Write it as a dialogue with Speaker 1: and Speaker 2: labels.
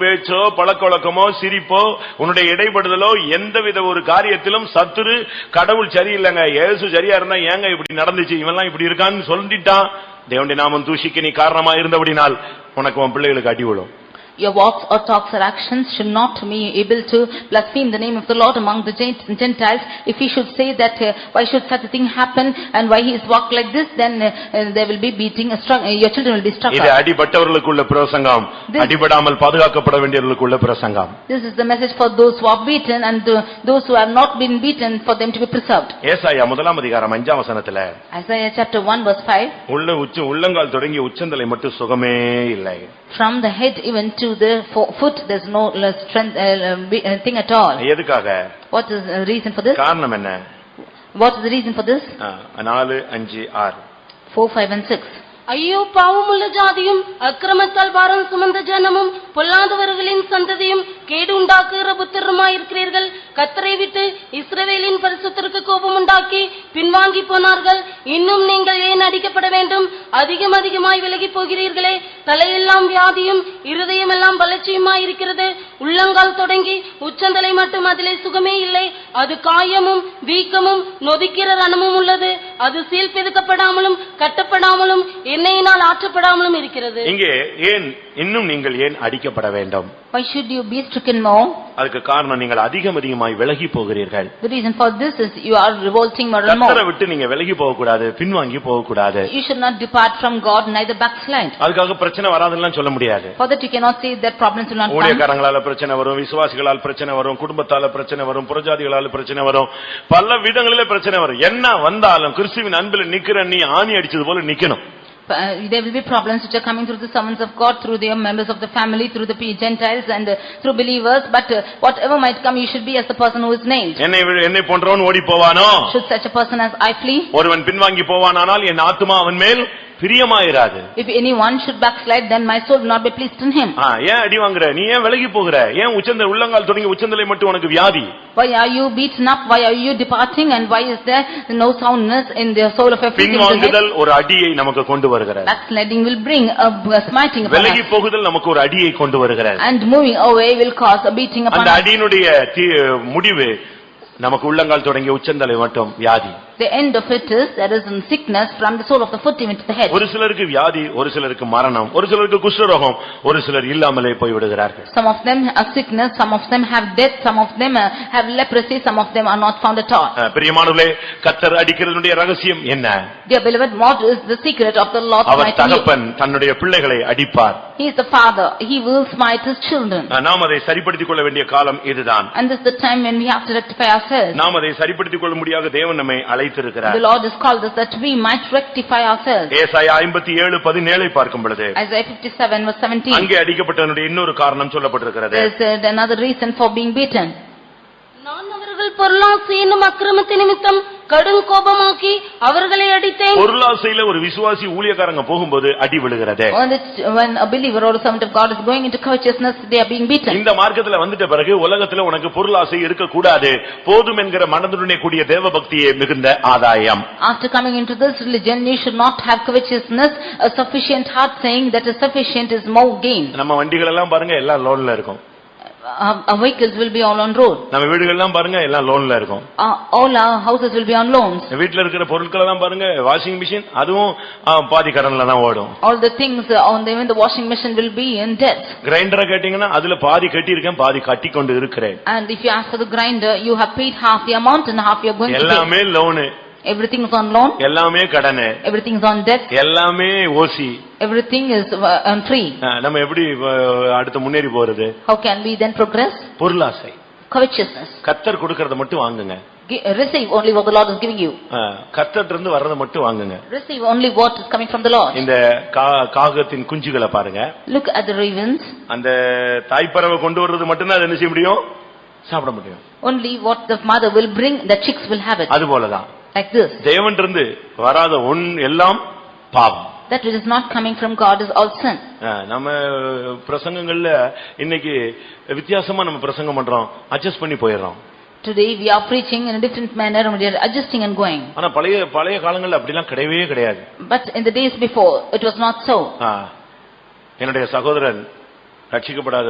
Speaker 1: பேச்சோ பழக்கவழக்கமோ சிரிப்போ உன்னுடைய இடைப்படுதலோ எந்தவித ஒரு காரியத்திலும் சத்துரு கடவுள் சரியில்லைங்க இயேசு சரியா இருந்தா ஏங்க இப்படி நடந்துச்சு இவன்லாம் இப்படி இருக்கான்னு சொல்லிட்டான் தேவனுடைய நாமம் தூஷிக்கு நீ காரணமா இருந்தபடினால் உனக்கு உன் பிள்ளைகளுக்கு அடி விழும்
Speaker 2: Your walks or talks or actions should not be able to blaspheme the name of the Lord among the Gent- Gentiles. If he should say that, uh, why should such a thing happen and why he is walked like this, then uh, uh, there will be beating, a strugg- uh, your children will be struck
Speaker 1: இது
Speaker 2: up.
Speaker 1: அடிபட்டவர்களுக்குள்ள பிரசங்கம்
Speaker 2: This-
Speaker 1: அடிபடாமல் பாதுகாக்கப்பட வேண்டியவர்களுக்குள்ள பிரசங்கம்
Speaker 2: This is the message for those who are beaten and uh, those who have not been beaten, for them to be preserved.
Speaker 1: ஏசாயா முதலாம் அதிகாரம் அஞ்சாம் வசனத்துல
Speaker 2: Isaiah chapter 1 verse 5,
Speaker 1: உள்ள உச்ச உள்ளங்கால் தொடங்கி உச்சந்தலை மட்டும் சுகமே இல்லை
Speaker 2: from the head even to the fo- foot, there is no uh, strength, uh, uh, be- uh, thing at all.
Speaker 1: எதுக்காக
Speaker 2: What is the reason for this?
Speaker 1: காரணம் என்ன
Speaker 2: What is the reason for this?
Speaker 1: ஆ, நாலு அஞ்சு ஆறு
Speaker 2: 4, 5 and 6.
Speaker 3: ஐயோ பாவமுள்ள ஜாதியும் அக்கிரமத்தால் பாரம் சுமந்த ஜனமும் பொல்லாதவர்களின் சந்ததியும் கேடு உண்டாக்குகிற புத்திரமாயிருக்கிறீர்கள் கத்தரை விட்டு இஸ்ரவேலின் பரிசுத்தருக்கு கோபம் உண்டாக்கி பின்வாங்கி போனார்கள் இன்னும் நீங்கள் ஏன் அடிக்கப்பட வேண்டும் அதிகம் அதிகமாய் விலகி போகிறீர்களே தலையெல்லாம் வியாதியும் இருதயமெல்லாம் பலட்சியுமாயிருக்கிறது உள்ளங்கால் தொடங்கி உச்சந்தலை மட்டும் அதிலே சுகமே இல்லை அது காயமும் வீக்கமும் நொதிக்கிற ரணமும் உள்ளது அது சீல் பிதுக்கப்படாமலும் கட்டப்படாமலும் எண்ணெயினால் ஆற்றப்படாமலும் இருக்கிறது
Speaker 1: இங்கே ஏன் இன்னும் நீங்கள் ஏன் அடிக்கப்பட வேண்டும்
Speaker 2: Why should you be stricken more?
Speaker 1: அதுக்கு காரணம் நீங்கள் அதிகம் அதிகமாய் விலகி போகிறீர்கள்
Speaker 2: The reason for this is you are revolting more and
Speaker 1: கத்தரை
Speaker 2: more.
Speaker 1: விட்டு நீங்க விலகி போக கூடாது பின்வாங்கி போக கூடாது
Speaker 2: You should not depart from God, neither backslide.
Speaker 1: அதுக்காக பிரச்சனை வராதுன்னு சொல்ல முடியாது
Speaker 2: For that you cannot say that problems will not come.
Speaker 1: ஊழியக்காரங்களால பிரச்சனை வரும் விசுவாசிகளால் பிரச்சனை வரும் குடும்பத்தால பிரச்சனை வரும் புறஜாதிகளால பிரச்சனை வரும் பல விதங்களிலே பிரச்சனை வரும் என்ன வந்தாலும் கிறிஸ்துவின் அன்பில் நிக்கிற நீ ஆணி அடிச்சது போல நிக்கணும்
Speaker 2: Uh, There will be problems which are coming through the servants of God, through the members of the family, through the pe- Gentiles and uh, through believers. But uh, whatever might come, you should be as the person who is nailed.
Speaker 1: என்னை விட- என்னை போன்றவன் ஓடி போவானோ
Speaker 2: Should such a person as I flee?
Speaker 1: ஒருவன் பின்வாங்கி போவானானால் என் ஆத்துமா அவன் மேல் பிரியமாயிராது
Speaker 2: If anyone should backslide, then my soul will not be pleased in him.
Speaker 1: ஆ, ஏன் அடி வாங்குற நீ ஏன் விலகி போகிற ஏன் உச்சந்த உள்ளங்கால் தொடங்கி உச்சந்தலை மட்டும் உனக்கு வியாதி
Speaker 2: Why are you beaten up? Why are you departing? And why is there no soundness in the soul of a fleeting head?
Speaker 1: பின்வாங்குதல் ஒரு அடியை நமக்கு கொண்டு வருகிறது
Speaker 2: Backsliding will bring a a smiting upon us.
Speaker 1: விலகி போகுதல் நமக்கு ஒரு அடியை கொண்டு வருகிறது
Speaker 2: And moving away will cause a beating upon
Speaker 1: அந்த
Speaker 2: us.
Speaker 1: அடியினுடைய தீ- முடிவு நமக்கு உள்ளங்கால் தொடங்கிய உச்சந்தலை மட்டும் வியாதி
Speaker 2: The end of it is, there is a sickness from the sole of the foot even to the head.
Speaker 1: ஒரு சிலருக்கு வியாதி ஒரு சிலருக்கு மரணம் ஒரு சிலருக்கு குஷ்டரோகம் ஒரு சிலர் இல்லாமலே போய் விடுகிறார்கள்
Speaker 2: Some of them are sickness, some of them have death, some of them uh, have leprosy, some of them are not found at all.
Speaker 1: ஆ, பிரியமானவர்களே கத்தர் அடிக்கிறதுடைய ரகசியம் என்ன
Speaker 2: Dear beloved, what is the secret of the Lord's
Speaker 1: our
Speaker 2: mighty will?
Speaker 1: தகப்பன் தன்னுடைய பிள்ளைகளை அடிப்பார்
Speaker 2: He is the father, he will smite his children.
Speaker 1: ஆ, நாம் அதை சரிப்படுத்திக் கொள்ள வேண்டிய காலம் இதுதான்
Speaker 2: And this is the time when we have to rectify ourselves.
Speaker 1: நாம் அதை சரிப்படுத்திக் கொள்ள முடியாத தேவன் நம்மை
Speaker 2: The
Speaker 1: அழைத்திருக்கிறார்
Speaker 2: Lord has called us that we might rectify ourselves.
Speaker 1: ஏசாயா ஐம்பத்தி ஏழு பதினேழை பார்க்கும் பொழுது
Speaker 2: Isaiah fifty-seven verse seventeen,
Speaker 1: அங்கே அடிக்கப்பட்டவனுடைய இன்னொரு காரணம் சொல்லப்பட்டிருக்கிறது
Speaker 2: there is uh, another reason for being beaten.
Speaker 3: நான் அவர்கள் பொருளாசி என்னும் அக்கிரமத்து நிமித்தம் கடும் கோபமாக்கி அவர்களை அடித்தேன்
Speaker 1: பொருளாசையில ஒரு விசுவாசி ஊழியக்காரங்க போகும்போது அடி விழுகிறது
Speaker 2: When it's- when a believer or a servant of God is going into covetousness, they are being beaten.
Speaker 1: இந்த மார்க்கத்துல வந்துட்ட பிறகு உலகத்துல உனக்கு பொருளாசை இருக்கக்கூடாது போதும் என்கிற மனதுடனே கூடிய தேவ பக்தியே மிகுந்த ஆதாயம்
Speaker 2: After coming into this religion, you should not have covetousness, a sufficient heart saying that is sufficient is more gain.
Speaker 1: நம்ம வண்டிகள் எல்லாம் பாருங்க எல்லாம் லோன்ல இருக்கும்
Speaker 2: Our our vehicles will be all on road.
Speaker 1: நம்ம வீடுகள் எல்லாம் பாருங்க எல்லாம் லோன்ல இருக்கும்
Speaker 2: Our- All our houses will be on loans.
Speaker 1: வீட்டுல இருக்கிற பொருட்கள் எல்லாம் பாருங்க வாஷிங் மிஷின் அதுவும் ஆ, பாதி கடன்ல தான் ஓடும்
Speaker 2: All the things on the, even the washing machine will be in debt.
Speaker 1: கிரைண்டரை கேட்டீங்கன்னா அதுல பாதி கட்டியிருக்கேன் பாதி கட்டி கொண்டு இருக்கிறேன்
Speaker 2: And if you ask for the grinder, you have paid half the amount and half you are going to pay.
Speaker 1: எல்லாமே loan
Speaker 2: Everything is on loan,
Speaker 1: எல்லாமே கடனு
Speaker 2: everything is on debt,
Speaker 1: எல்லாமே ஓசி
Speaker 2: everything is uh, on free.
Speaker 1: அஹ், நம்ம எப்படி அஹ், அடுத்து முன்னேறி போறது
Speaker 2: How can we then progress?
Speaker 1: பொருளாசை
Speaker 2: Covetousness.
Speaker 1: கத்தர் கொடுக்கறத மட்டும் வாங்குங்க
Speaker 2: Gi- Receive only what the Lord is giving you.
Speaker 1: கத்தர் இருந்து வர்றத மட்டும் வாங்குங்க
Speaker 2: Receive only what is coming from the Lord.
Speaker 1: இந்த கா- காகத்தின் குஞ்சுகளை பாருங்க
Speaker 2: Look at the ravens,
Speaker 1: அந்த தாய்ப்பறவை கொண்டு வர்றது மட்டும்தான் அது என்ன செய்ய முடியும் சாப்பிட முடியும்
Speaker 2: only what the mother will bring, the chicks will have it,
Speaker 1: அது போலதான்
Speaker 2: like this.
Speaker 1: தேவன் இருந்து வராத ஒன் எல்லாம் பாவம்
Speaker 2: That which is not coming from God is all sin.
Speaker 1: அஹ், நம்ம பிரசங்கங்கள்ல இன்னைக்கு வித்தியாசமா நம்ம பிரசங்கம் பண்றோம் அட்ஜஸ்ட் பண்ணி போயிடுறோம்
Speaker 2: Today we are preaching in a different manner and we are adjusting and going.
Speaker 1: ஆனா பழைய பழைய காலங்கள்ல அப்படிலாம் கிடையவே கிடையாது
Speaker 2: But in the days before, it was not so.
Speaker 1: ஆ, என்னுடைய சகோதரன் ரட்சிக்கப்படாத